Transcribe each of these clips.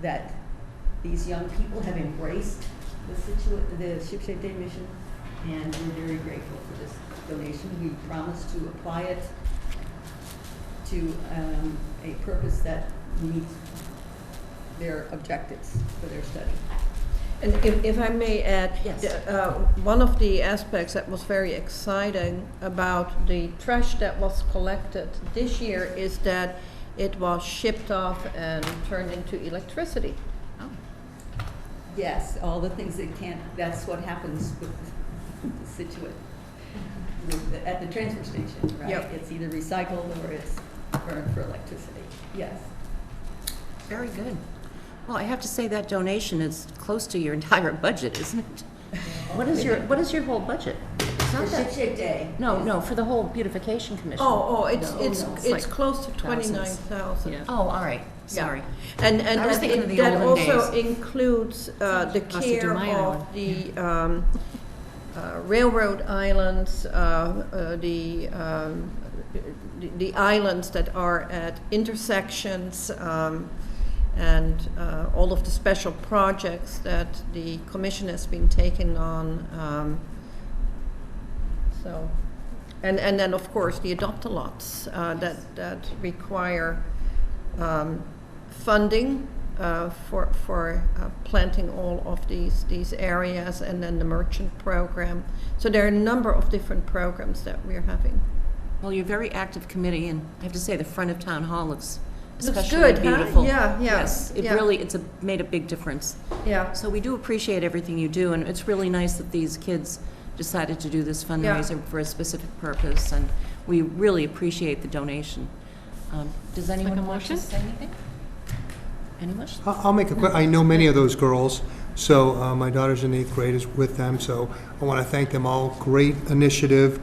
that these young people have embraced the situa, the Shipshape Day mission, and we're very grateful for this donation. We promise to apply it to, um, a purpose that meets their objectives for their study. And if, if I may add, Yes. the- uh, one of the aspects that was very exciting about the trash that was collected this year is that it was shipped off and turned into electricity. Oh, Yes, all the things that can't, that's what happens with the Situate, with the- at the transfer station, right? Yep. It's either recycled or it's burned for electricity, yes. Very good. Well, I have to say that donation is close to your entire budget, isn't it? What is your, what is your whole budget? It's For not Ship that, Shape Day. no, no, for the whole beautification commission. Oh, oh, it's, No, it's, no, it's it's like close to thousands. twenty-nine thousand. Yeah. Oh, all right, sorry. And, and I was that thinking of it- the that olden also includes uh, the Must have care been my of the um, uh, railroad islands, uh, uh, the, um, the- the islands that are at intersections, um, and uh, all of the special projects that the commission has been taking on. um, So, and, and then, of course, the adopt-a-lots uh, that, that require um, funding uh, for, for uh, planting all of these, these areas, and then the merchant program. So there are a number of different programs that we're having. Well, you're a very active committee, and I have to say, the front of Town Hall looks Looks especially good, huh? beautiful. Yeah, yeah, Yes, it yeah. really, it's a- made a big difference. Yeah. So we do appreciate everything you do, and it's really nice that these kids decided to do this fundraiser for a specific purpose, and we really appreciate the donation. Um, Does anyone want to motion? say anything? Any wish? I- I'll make a quick, I know many of those girls, so uh, my daughter's in eighth grade is with them, so I want to thank them all. Great initiative,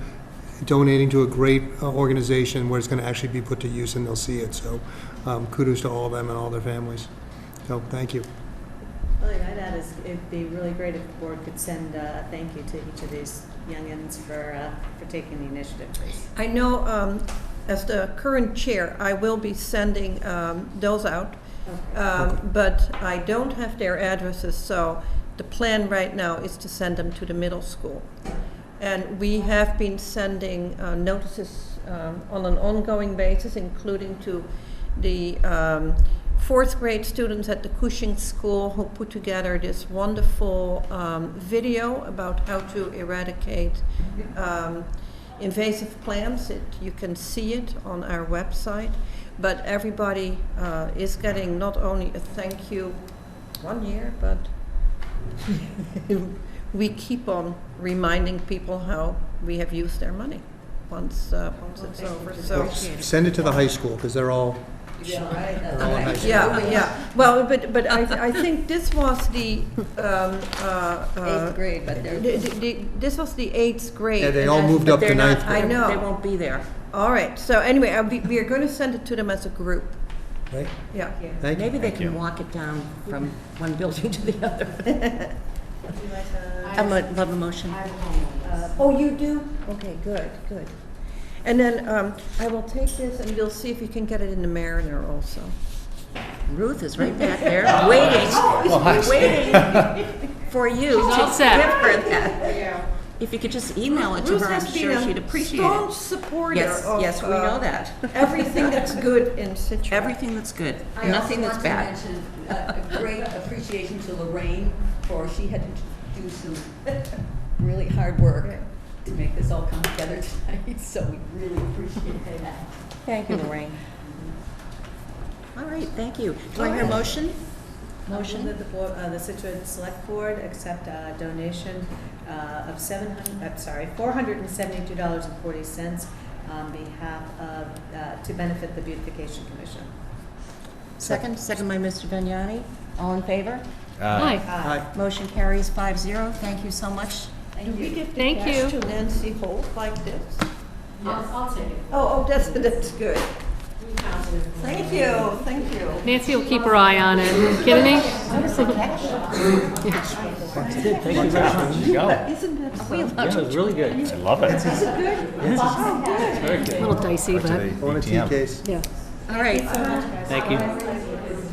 donating to a great uh, organization where it's going to actually be put to use and they'll see it, so um, kudos to all of them and all their families. So, thank you. Oh, Well, yeah, that is, it'd be really great if the board could send uh, a thank you to each of these youngins for, uh, for taking the initiative, please. I know, um, as the current chair, I will be sending um, those out, Um, but I don't have their addresses, so the plan right now is to send them to the middle school. And we have been sending uh, notices um, on an ongoing basis, including to the um, fourth grade students at the Cushing School who put together this wonderful um, video about how to eradicate um, invasive plants. It, you can see it on our website. But everybody uh, is getting not only a thank you one year, but we keep on reminding people how we have used their money once, uh, once it's over. So, Send it to the high school, because they're all, Yeah, right, that's they're all in high right. school. yeah, yeah. Well, but, but I, I think this was the, um, uh, uh, Eighth grade, but they're. the- the- the- this was the eighth grade. Yeah, they and all I- moved But up they're to ninth not- grade. I know. They won't be there. All right, so anyway, uh, we, we are going to send it to them as a group, right? yeah. Thank you. Maybe they can walk it down from one building to the other. I would love a motion. Uh, Oh, you do? Okay, good, good. And then um, I will take this and we'll see if we can get it in the Mariner also. Ruth is right back there, waiting, waiting for you to She's all give set. her that. If you could just email it to Ruth her, I'm has been sure a she'd appreciate Staunch it. supporter Yes, of. yes, we uh, know that. Everything that's good in Situate. Everything that's good, I also nothing that's want to bad. mention, uh, a Great appreciation to Lorraine for she had to do some really hard work to make this all come together tonight, so we really appreciate that. Thank you, Lorraine. All right, thank you. Do I hear a Oh. motion? Motion? Motion that the board, uh, the Situate Select Board accept a donation, uh, of seven hundred, I'm sorry, four hundred and seventy-two dollars and forty cents on behalf of, uh, to benefit the beautification commission. Second, second by Mr. Vignani. All in favor? Hi. Aye. Motion carries five zero. Thank you so much. Do we give the Thank cash to you. Nancy Holt like this? I'll, I'll take it. Oh, oh, that's, that's good. We found it. Thank you, thank you. Nancy will keep her eye on it, kidding me? Thank you very much. You go. Yeah, Isn't that so? it was really good. I love it. Is it good? Oh, good. Very good. A little dicey, but. I want a tea case. Yeah. All right. Thank you.